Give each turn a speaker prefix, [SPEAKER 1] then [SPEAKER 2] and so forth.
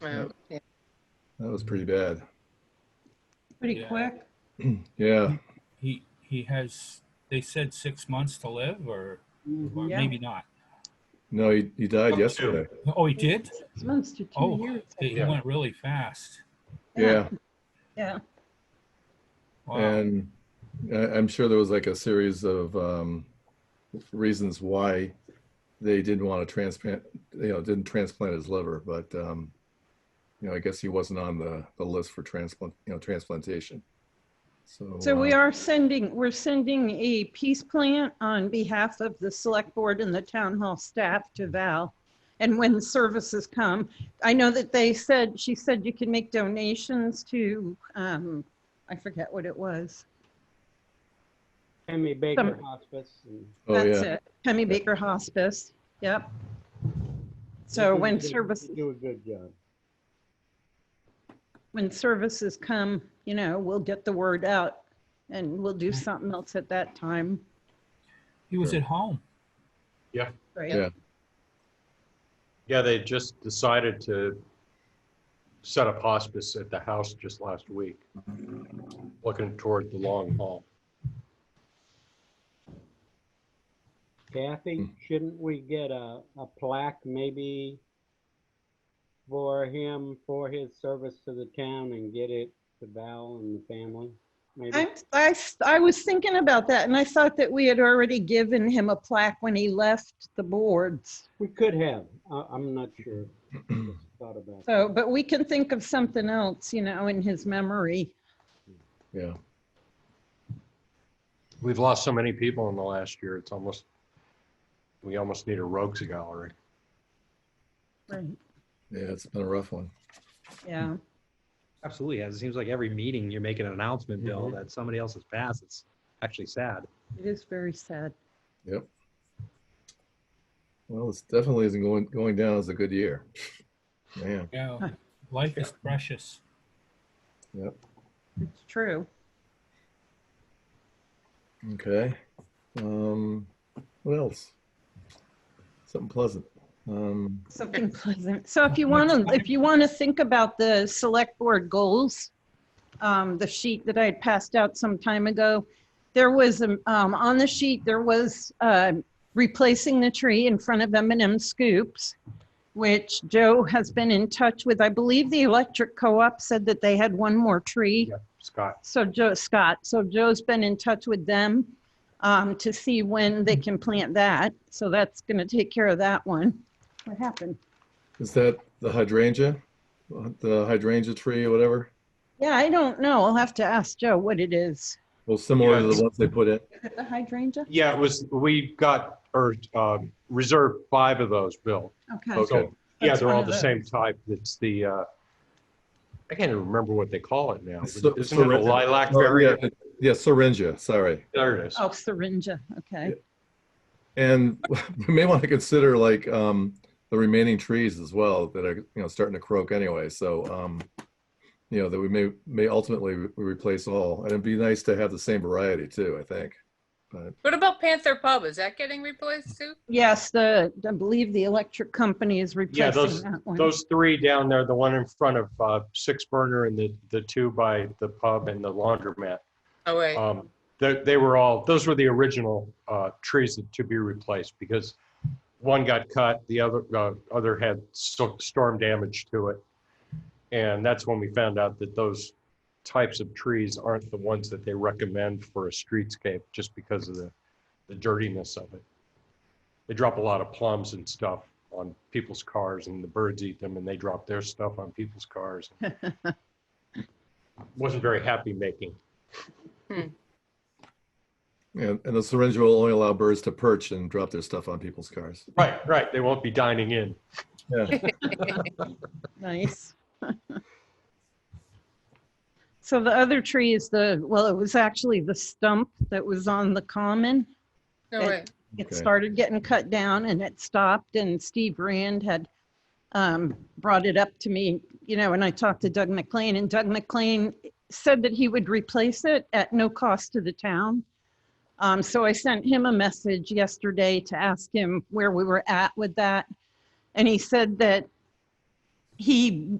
[SPEAKER 1] Wow. Yeah.
[SPEAKER 2] That was pretty bad.
[SPEAKER 3] Pretty
[SPEAKER 4] Yeah.
[SPEAKER 3] quick.
[SPEAKER 2] Yeah.
[SPEAKER 4] He, he has, they said six months to live or, or
[SPEAKER 1] Mhm.
[SPEAKER 3] Yeah.
[SPEAKER 4] maybe not.
[SPEAKER 2] No, he, he died
[SPEAKER 5] Up to.
[SPEAKER 2] yesterday.
[SPEAKER 4] Oh, he did?
[SPEAKER 1] Six months to two
[SPEAKER 4] Oh,
[SPEAKER 1] years.
[SPEAKER 4] He
[SPEAKER 5] Yeah.
[SPEAKER 4] went really fast.
[SPEAKER 2] Yeah.
[SPEAKER 1] Yeah.
[SPEAKER 4] Wow.
[SPEAKER 2] And I- I'm sure there was like a series of um, reasons why they didn't want to transplant, you know, didn't transplant his liver, but, um, you know, I guess he wasn't on the, the list for transplant, you know, transplantation. So,
[SPEAKER 1] So we
[SPEAKER 2] uh,
[SPEAKER 1] are sending, we're sending a peace plant on behalf of the select board and the town hall staff to Val. And when the services come, I know that they said, she said you can make donations to, um, I forget what it was.
[SPEAKER 6] Henry Baker
[SPEAKER 1] Some-
[SPEAKER 6] Hospice. and
[SPEAKER 2] Oh,
[SPEAKER 1] That's
[SPEAKER 2] yeah.
[SPEAKER 1] it. Hemi Baker Hospice. Yep. So
[SPEAKER 6] you
[SPEAKER 1] when
[SPEAKER 6] do- you
[SPEAKER 1] services,
[SPEAKER 6] Do a good job.
[SPEAKER 1] when services come, you know, we'll get the word out and we'll do something else at that time.
[SPEAKER 4] He was
[SPEAKER 2] Sure.
[SPEAKER 4] at home.
[SPEAKER 1] Right?
[SPEAKER 2] Yeah.
[SPEAKER 5] Yeah, they just decided to set up hospice at the house just last week, looking toward the long haul.
[SPEAKER 6] Kathy, shouldn't we get a, a plaque maybe for him, for his service to the town and get it to Val and the family?
[SPEAKER 1] I,
[SPEAKER 6] Maybe,
[SPEAKER 1] I, s- I was thinking about that and I thought that we had already given him a plaque when he left the boards.
[SPEAKER 6] we could have, I, I'm not sure. Just Thought about that.
[SPEAKER 1] So, but we can think of something else, you know, in his memory.
[SPEAKER 2] Yeah.
[SPEAKER 5] We've lost so many people in the last year, it's almost, we almost need a rogues gallery.
[SPEAKER 1] Right.
[SPEAKER 2] Yeah. It's been a rough one.
[SPEAKER 1] Yeah.
[SPEAKER 7] Absolutely has. It seems like every meeting you're making an announcement, Bill, that somebody else has passed. It's actually sad.
[SPEAKER 1] It is very sad.
[SPEAKER 2] Yep. Well, it's definitely isn't going, going down as a good year. Man,
[SPEAKER 4] Yeah. Life is precious.
[SPEAKER 1] It's true.
[SPEAKER 2] okay. Um, what else? Something pleasant. Um,
[SPEAKER 1] Something pleasant. So if you want to, if you want to think about the select board goals, um, the sheet that I had passed out some time ago, there was, um, um, on the sheet, there was, uh, replacing the tree in front of m and M Scoops, which Joe has been in touch with. I believe the electric co-op said that they had one more tree.
[SPEAKER 5] Yeah, Scott,
[SPEAKER 1] So Joe, Scott, so Joe's been in touch with them um, to see when they can plant that. So that's going to take care of that one. What happened?
[SPEAKER 2] is that the hydrangea? The hydrangea tree or whatever?
[SPEAKER 1] Yeah, I don't know. I'll have to ask Joe what it is.
[SPEAKER 2] Well, similar to
[SPEAKER 5] Yes.
[SPEAKER 2] the ones they put in.
[SPEAKER 1] Is it the hydrangea?
[SPEAKER 5] yeah, it was, we got, or um, reserved five of those, Bill.
[SPEAKER 1] Okay.
[SPEAKER 2] Okay.
[SPEAKER 5] So, yeah,
[SPEAKER 1] That's
[SPEAKER 5] they're
[SPEAKER 1] one
[SPEAKER 5] all
[SPEAKER 1] of
[SPEAKER 5] the
[SPEAKER 1] those.
[SPEAKER 5] same type. It's the, uh, I can't even remember what they call it now.
[SPEAKER 2] It's the-
[SPEAKER 5] Isn't it a
[SPEAKER 2] syringe.
[SPEAKER 5] lilac
[SPEAKER 2] Oh,
[SPEAKER 5] berry?
[SPEAKER 2] yeah, Yeah, syringa, sorry.
[SPEAKER 5] There it is.
[SPEAKER 1] Oh, syringa. Okay.
[SPEAKER 2] And we may want to consider like, um, the remaining trees as well that are, you know, starting to croak anyway. So, um, you know, that we may, may ultimately re- replace all. And it'd be nice to have the same variety too, I think.
[SPEAKER 8] What about Panther Pub? Is that getting replaced too?
[SPEAKER 1] Yes, the, I believe the electric company is
[SPEAKER 5] Yeah,
[SPEAKER 1] replacing
[SPEAKER 5] those-
[SPEAKER 1] that one.
[SPEAKER 5] Those three down there, the one in front of uh, Six Burner and the, the two by the pub and the laundromat.
[SPEAKER 8] Oh, wait.
[SPEAKER 5] Um, They, they were all, those were the original uh, trees that- to be replaced because one got cut, the other, uh, other had sto- storm damage to it. And that's when we found out that those types of trees aren't the ones that they recommend for a streetscape just because of the, the dirtiness of it. They drop a lot of plums and stuff on people's cars and the birds eat them and they drop their stuff on people's cars. Wasn't very happy making.
[SPEAKER 2] And, and the syringe will only allow birds to perch and drop their stuff on people's cars.
[SPEAKER 5] Right, right. They won't be dining in.
[SPEAKER 1] Nice. So the other tree is the, well, it was actually the stump that was on the common.
[SPEAKER 8] No,
[SPEAKER 1] it-
[SPEAKER 8] wait.
[SPEAKER 1] it
[SPEAKER 2] Okay.
[SPEAKER 1] started getting cut down and it stopped and Steve Rand had um, brought it up to me, you know, and I talked to Doug McLean and Doug McLean said that he would replace it at no cost to the town. Um, so I sent him a message yesterday to ask him where we were at with that. And he said that he